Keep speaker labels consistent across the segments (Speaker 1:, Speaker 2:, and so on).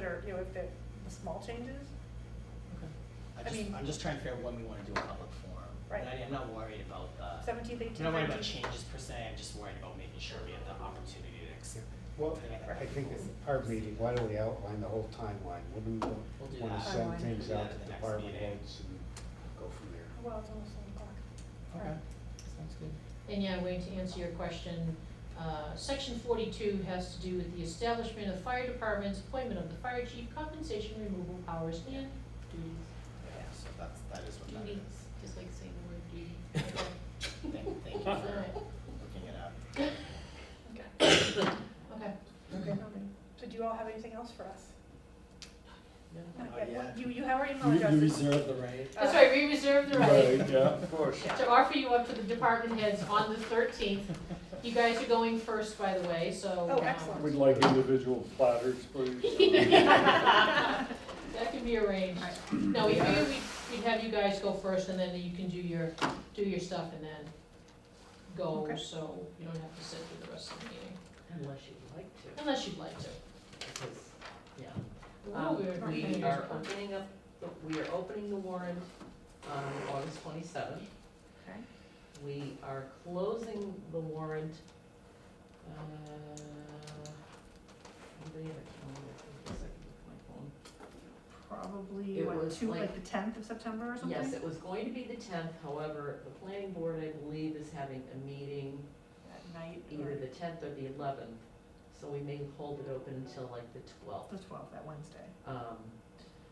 Speaker 1: looked at the small changes.
Speaker 2: I
Speaker 1: I
Speaker 2: just,
Speaker 1: mean-
Speaker 2: I'm just trying to figure out when we wanna do a public forum.
Speaker 1: Right.
Speaker 2: And I, am not worried about, uh,
Speaker 1: Seventeenth, eighteenth,
Speaker 2: I'm not worried about
Speaker 1: 19th.
Speaker 2: changes per se, I'm just worried about making sure we have the opportunity to ex-
Speaker 3: Well, I think at our meeting, why don't we outline the whole timeline? Wouldn't
Speaker 2: We'll
Speaker 3: we
Speaker 2: do
Speaker 3: want
Speaker 2: that.
Speaker 3: to send
Speaker 1: Timeline.
Speaker 3: things
Speaker 2: Do that
Speaker 3: out
Speaker 2: at the
Speaker 3: to
Speaker 2: next
Speaker 3: department
Speaker 2: meeting.
Speaker 3: heads and go from there?
Speaker 1: Well, it's almost seven o'clock.
Speaker 2: Okay, sounds good.
Speaker 4: And yeah, Wayne, to answer your question, uh, section forty-two has to do with the establishment of fire departments, appointment of the fire chief, compensation, removal powers, and duties.
Speaker 2: Yeah, so that's, that is what that
Speaker 4: Duties,
Speaker 2: is.
Speaker 4: just like saying the word duty.
Speaker 2: Thank, thank you
Speaker 4: All
Speaker 2: for
Speaker 4: right,
Speaker 2: looking it up.
Speaker 1: Okay.
Speaker 4: okay.
Speaker 1: Okay. So do you all have anything else for us?
Speaker 2: Not
Speaker 1: Okay, well,
Speaker 2: yet.
Speaker 1: You, you have our email
Speaker 5: You, you
Speaker 1: addresses. Uh,
Speaker 5: reserve the right.
Speaker 4: That's right, we reserve the right
Speaker 5: yeah.
Speaker 3: Of course.
Speaker 4: to offer you up to the department heads on the thirteenth. You guys are going first, by the way, so.
Speaker 1: Oh,
Speaker 4: um,
Speaker 1: excellent.
Speaker 5: We'd like individual platters, please.
Speaker 4: That can be arranged. No, we figured we'd, we'd have you guys go first and then you can do your, do your stuff and then go,
Speaker 1: Okay.
Speaker 4: so you don't have to sit through the rest of the meeting,
Speaker 6: Unless you'd like to,
Speaker 4: unless you'd like to.
Speaker 6: because, yeah.
Speaker 4: Well, we're-
Speaker 6: Um, We
Speaker 4: we're-
Speaker 6: are opening up, the- we are opening the warrant on August twenty-seventh.
Speaker 1: Okay.
Speaker 6: We are closing the warrant, uh, anybody have a calendar? Give me a second to look at my phone.
Speaker 1: Probably,
Speaker 6: It
Speaker 1: what,
Speaker 6: was
Speaker 1: two,
Speaker 6: like-
Speaker 1: like the tenth of September or something?
Speaker 6: Yes, it was going to be the tenth, however, the planning board, I believe, is having a meeting
Speaker 1: At night
Speaker 6: either
Speaker 1: or
Speaker 6: the tenth or the eleventh, so we may hold it open until like the twelfth.
Speaker 1: the twelfth, that Wednesday.
Speaker 6: Um,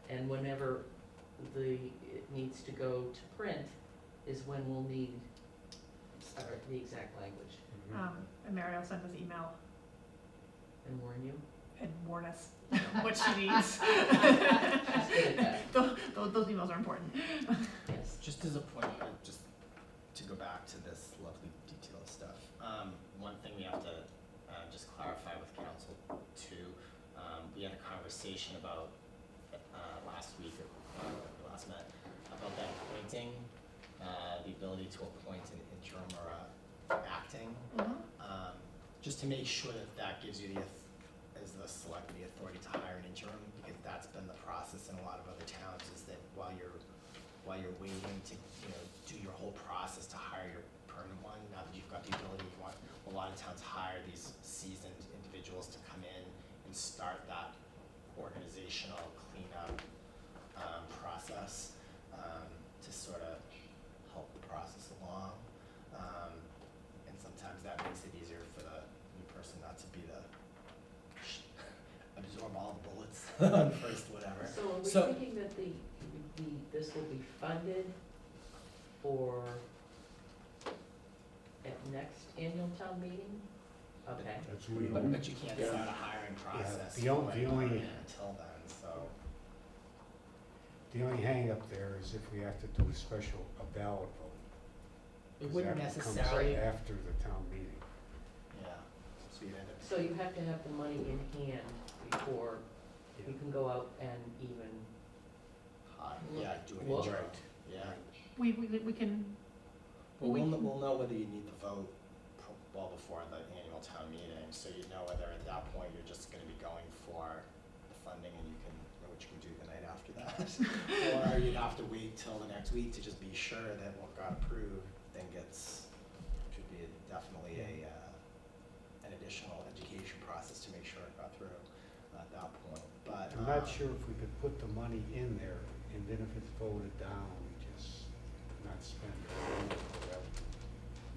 Speaker 6: and whenever the, it needs to go to print is when we'll need uh, the exact language
Speaker 3: Mm-hmm.
Speaker 1: Um, and Mary will send us email
Speaker 6: and warn you.
Speaker 1: and warn us what she needs.
Speaker 6: Just get it back,
Speaker 1: Those, those those emails are important.
Speaker 6: yes.
Speaker 2: Just as a point, uh, just to go back to this lovely detail of stuff, um, one thing we have to, uh, just clarify with council too, um, we had a conversation about, uh, last week, uh, when we last met, about that appointing, uh, the ability to appoint an interim or a acting,
Speaker 1: Mhm.
Speaker 2: um, just to make sure that that gives you the, auth- as the select, the authority to hire an interim, because that's been the process in a lot of other towns, is that while you're, while you're waiting to, you know, do your whole process to hire your permanent one, now that you've got the ability, you want, a lot of towns hire these seasoned individuals to come in and start that organizational cleanup, um, process, um, to sort of help the process along. Um, and sometimes that makes it easier for the new person not to be the absorb all the bullets on first whatever.
Speaker 6: So are
Speaker 2: So-
Speaker 6: we thinking that the, the, this will be funded for at next annual town meeting? Okay,
Speaker 3: That's what we
Speaker 2: But,
Speaker 3: hope.
Speaker 2: but you can't
Speaker 5: Yeah.
Speaker 2: start a hiring process
Speaker 3: Mm-hmm. the on- the
Speaker 2: like,
Speaker 3: only-
Speaker 2: until then, so.
Speaker 3: The only hangup there is if we have to do a special, a ballot vote.
Speaker 2: It
Speaker 3: 'cause
Speaker 2: wouldn't
Speaker 3: that comes
Speaker 2: necessarily, yeah,
Speaker 3: After the town meeting.
Speaker 2: so you'd end up,
Speaker 6: so you have to have the money in hand before you can go out and even
Speaker 2: hi- yeah, do an
Speaker 6: Well-
Speaker 2: interim, yeah.
Speaker 1: We, we, we can,
Speaker 2: Well,
Speaker 1: We
Speaker 2: we'll,
Speaker 1: can-
Speaker 2: we'll know whether you need the vote pro- well before the annual town meeting, so you know whether at that point you're just gonna be going for the funding and you can, know what you can do the night after that. Or you'd have to wait till the next week to just be sure that what got approved then gets, should be definitely a, uh, an additional education process to make sure it got through at that point, but,
Speaker 3: I'm not
Speaker 2: um,
Speaker 3: sure if we could put the money in there, and then if it's voted down, we just not spend it.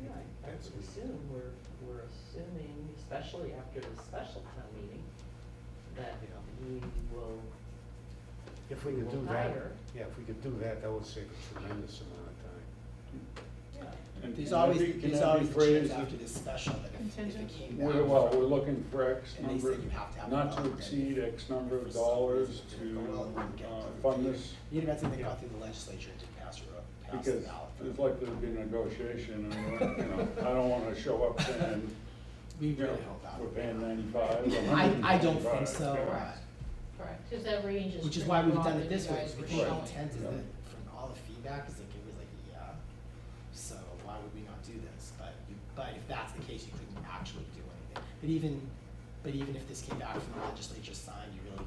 Speaker 6: Yeah, I
Speaker 3: That's
Speaker 6: would assume, we're, we're assuming, especially after the special town meeting, that
Speaker 3: Yeah.
Speaker 6: we will,
Speaker 3: If we could
Speaker 6: We'll
Speaker 3: do that,
Speaker 6: hire.
Speaker 3: yeah, if we could do that, that would save a tremendous amount of time.
Speaker 2: yeah.
Speaker 6: uh,
Speaker 5: And
Speaker 2: There's
Speaker 5: can
Speaker 2: always,
Speaker 5: that be- can
Speaker 2: there's
Speaker 5: that be
Speaker 2: always the chance
Speaker 5: phrased
Speaker 2: after
Speaker 5: as-
Speaker 2: this special that if, if it
Speaker 1: Contingent?
Speaker 2: came down.
Speaker 5: We're, well, we're looking for X
Speaker 2: And they
Speaker 5: number,
Speaker 2: said you have to have.
Speaker 5: not
Speaker 2: enough,
Speaker 5: to
Speaker 2: and
Speaker 5: exceed X number
Speaker 2: for
Speaker 5: of
Speaker 2: some
Speaker 5: dollars
Speaker 2: reason it didn't go well,
Speaker 5: to,
Speaker 2: it wouldn't get
Speaker 5: uh,
Speaker 2: approved.
Speaker 5: fund this,
Speaker 2: Even if something got through the legislature and didn't pass the, pass the
Speaker 5: because
Speaker 2: ballot.
Speaker 5: there's likely to be negotiation, and, we're, you know, I don't wanna show up saying,
Speaker 2: We
Speaker 5: you know,
Speaker 2: really hope that.
Speaker 5: we're
Speaker 2: would
Speaker 5: paying
Speaker 2: not.
Speaker 5: ninety-five, or
Speaker 2: I, I don't think
Speaker 5: 125,
Speaker 2: so,
Speaker 5: yeah.
Speaker 2: uh,
Speaker 4: Correct, because that range is.
Speaker 2: which is why we've
Speaker 4: broad
Speaker 2: done
Speaker 4: that
Speaker 2: it this
Speaker 4: you
Speaker 2: way,
Speaker 4: guys
Speaker 2: because
Speaker 4: were
Speaker 2: the
Speaker 4: showing.
Speaker 2: intent is
Speaker 5: Yeah.
Speaker 2: that from all the feedback is like, it was like, yeah, so why would we not do this? But, you- but if that's the case, you couldn't actually do anything. But even, but even if this came back from the legislature signed, you really